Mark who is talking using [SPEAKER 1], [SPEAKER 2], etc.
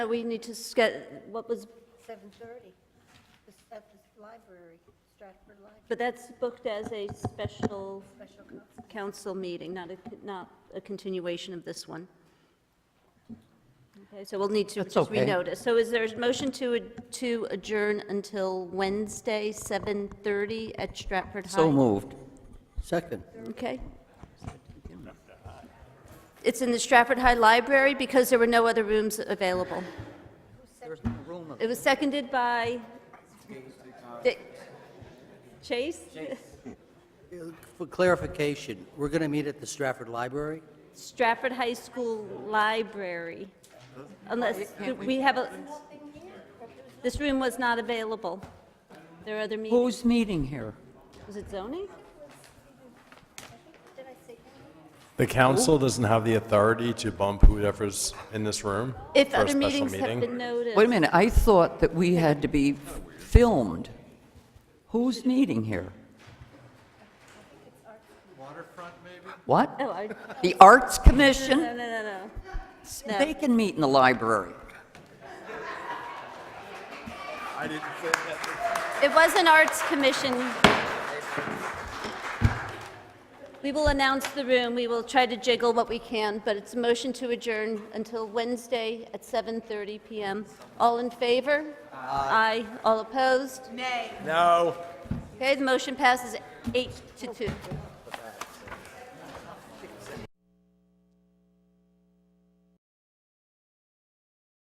[SPEAKER 1] Uh, We need to get, what was,
[SPEAKER 2] 7:30, the at the library, Stratford Library,
[SPEAKER 1] but that's booked as a special
[SPEAKER 2] special conference.
[SPEAKER 1] council meeting, not a, not a continuation of this one. Okay, so we'll need to
[SPEAKER 3] That's
[SPEAKER 1] just
[SPEAKER 3] okay.
[SPEAKER 1] renotice. So is there a motion to, ad- to adjourn until Wednesday, 7:30 at Stratford High?
[SPEAKER 3] So moved. Second.
[SPEAKER 1] Okay. It's in the Stratford High Library because there were no other rooms available.
[SPEAKER 3] There's no room.
[SPEAKER 1] It was seconded by Dick- Chase?
[SPEAKER 3] For clarification, we're going to meet at the Stratford Library?
[SPEAKER 1] Stratford High School Library. Unless, do we have a, this room was not available. There are other meetings.
[SPEAKER 3] Who's meeting here?
[SPEAKER 1] Was it zoning?
[SPEAKER 4] The council doesn't have the authority to bump whoever's in this room
[SPEAKER 1] If
[SPEAKER 4] for a
[SPEAKER 1] other
[SPEAKER 4] special
[SPEAKER 1] meetings have
[SPEAKER 4] meeting.
[SPEAKER 1] been noticed.
[SPEAKER 3] Wait a minute, I thought that we had to be filmed. Who's meeting here? Waterfront, maybe?
[SPEAKER 1] Oh, I, no,
[SPEAKER 3] What? The Arts
[SPEAKER 1] no,
[SPEAKER 3] Commission?
[SPEAKER 1] no, no.
[SPEAKER 3] They can meet in the library.
[SPEAKER 1] It was an arts commission. We will announce the room, we will try to jiggle what we can, but it's a motion to adjourn until Wednesday at 7:30 PM. All in favor? Aye. All opposed?
[SPEAKER 4] No.
[SPEAKER 1] Okay, the motion passes eight to two.